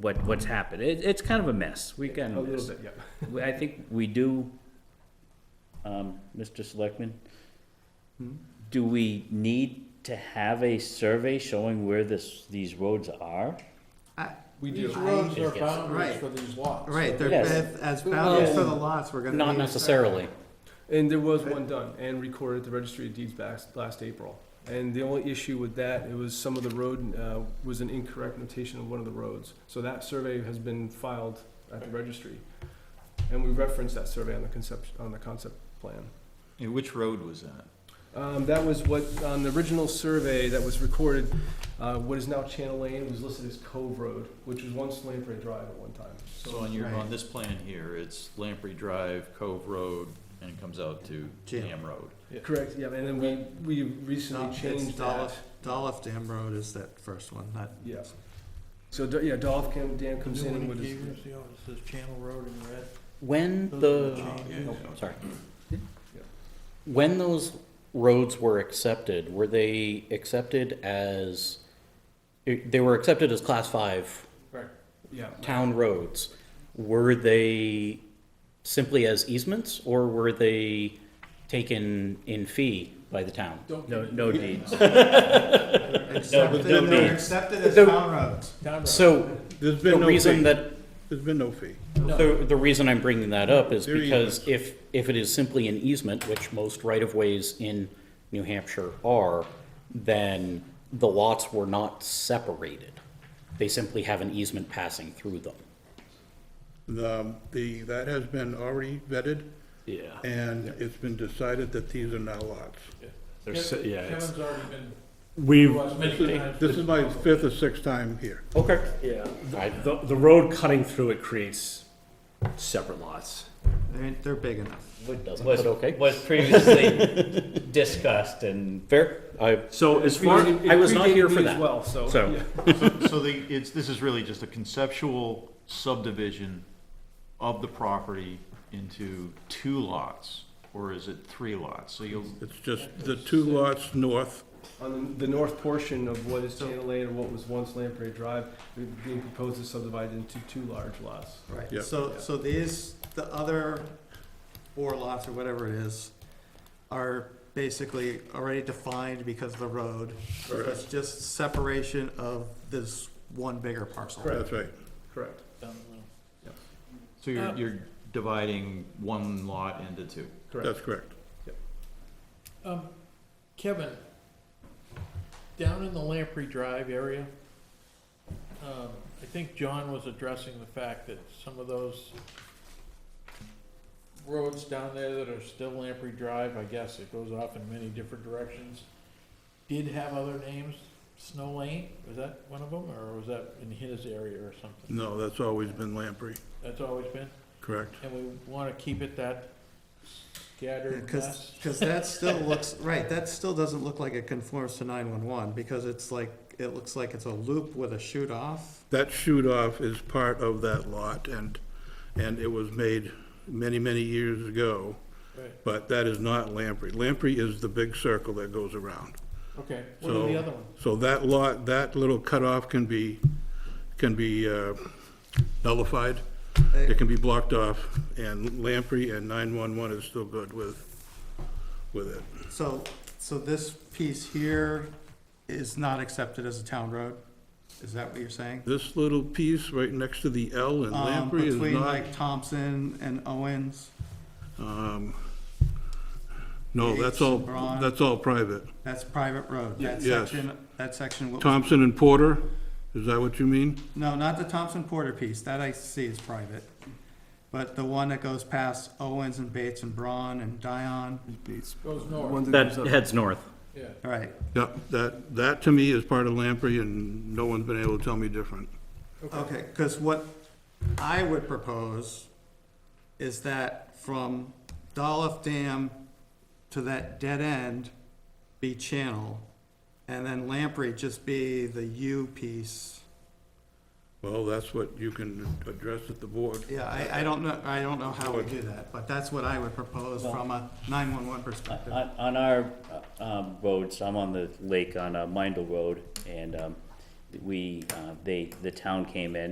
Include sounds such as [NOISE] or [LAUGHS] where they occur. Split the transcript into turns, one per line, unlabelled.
what, what's happened. It, it's kind of a mess. We kind
A
of mess.
little bit, yeah.
We- I think we do, um, Mr. Selectman,
Hmm?
do we need to have a survey showing where this, these roads are?
I-
We
These
do.
roads are
Yes.
boundaries
Right.
for these lots.
Right,
So
they're,
Yes.
as as boundaries for the lots, we're gonna.
Not
need a-
necessarily.
And there was one done and recorded at the registry of deeds back last April. And the only issue with that, it was some of the road, uh, was an incorrect notation of one of the roads. So that survey has been filed at the registry. And we referenced that survey on the concept, on the concept plan.
And which road was that?
Um, that was what, on the original survey that was recorded, uh, what is now Channel Lane was listed as Cove Road, which was once Lamprey Drive at one time.
So on your,
Right.
on this plan here, it's Lamprey Drive, Cove Road, and it comes out to
Jam.
Dam Road.
Correct, yeah, and then we, we
No,
recently
it's
changed that.
Dolph- Dolph Dam Road is that first one, not.
Yeah. So, Do- yeah, Dolph Cam, Dan
The
comes
new
in
one
and
in
what is.
Cambridge, the other says Channel Road in red.
When
Those are
the,
changes.
yeah.
oh, sorry. When those roads were accepted, were they accepted as, they were accepted as class five
Right. Yeah,
town roads? Were they simply as easements or were they taken in fee by the town?
No, no deeds.
Accepted,
no
they're
deeds.
accepted as
The-
town roads.
So
There's
the
been no
reason
fee.
that
There's been no fee.
The, the reason I'm bringing that up is
They're
because if, if it is simply an easement, which most right-of-ways in New Hampshire are, then the lots were not separated. They simply have an easement passing through them.
The, the, that has been already vetted,
Yeah.
and it's been decided that these are now lots.
Kev- Kevin's already been.
We've,
watched many times.
This is my fifth or sixth time here.
Okay.
yeah,
I-
the, the road cutting through it creates separate lots.
They're, they're big enough.
Doesn't,
Was,
but okay.
was previously discussed and,
Fair. I,
So as far,
It- it
I was not
predated
here for
me as
that.
well, so.
So-
yeah.
So the, it's, this is really just a conceptual subdivision of the property into two lots, or is it three lots? So you'll,
It's just the two lots north,
On the the north portion of what is Channel Lane and what was once Lamprey Drive, they're being proposed to subdivide into two large lots.
Yeah.
Right, so, so these, the other four lots or whatever it is, are basically already defined because of the road. So It's just separation of this one bigger parcel.
that's right.
Correct.
so you're, you're dividing one lot into two.
That's correct.
Um, Kevin, down in the Lamprey Drive area, um, I think John was addressing the fact that some of those roads down there that are still Lamprey Drive, I guess it goes off in many different directions, did have other names, Snow Lane, was that one of them, or was that in his area or something?
No, that's always been Lamprey,
That's always been,
correct?
and we wanna keep it that scattered
Because,
[LAUGHS] mess?
because that still looks, right, that still doesn't look like it conforms to nine-one-one, because it's like, it looks like it's a loop with a shoot off.
That shoot off is part of that lot, and, and it was made many, many years ago,
Right,
but that is not Lamprey. Lamprey is the big circle that goes around.
okay, what are the
So,
other ones?
so that lot, that little cutoff can be, can be uh, nullified. It can be blocked off, and Lamprey and 911 is still good with, with it.
So, so this piece here is not accepted as a town road? Is that what you're saying?
This little piece right next to the L in
Um,
Lamprey is
Between
not,
like Thompson and Owens,
um, no, that's all,
Yates, Braun.
that's all private.
that's private road, that
Yes.
section, that section, what-
Thompson and Porter, is that what you mean?
no, not the Thompson Porter piece, that I see is private. But the one that goes past Owens and Bates and Braun and Dion,
Goes north.
that heads north.
Yeah,
right,
Yeah, that, that to me is part of Lamprey, and no one's been able to tell me different.
Okay, because what I would propose is that from Dolph Dam to that dead end be channel, and then Lamprey just be the U piece.
Well, that's what you can address at the board.
Yeah, I, I don't know, I don't know how we do that, but that's what I would propose from a nine-one-one perspective.
on, on our, uh, um, roads, I'm on the lake on, uh, Mindle Road, and, um, we, uh, they, the town came in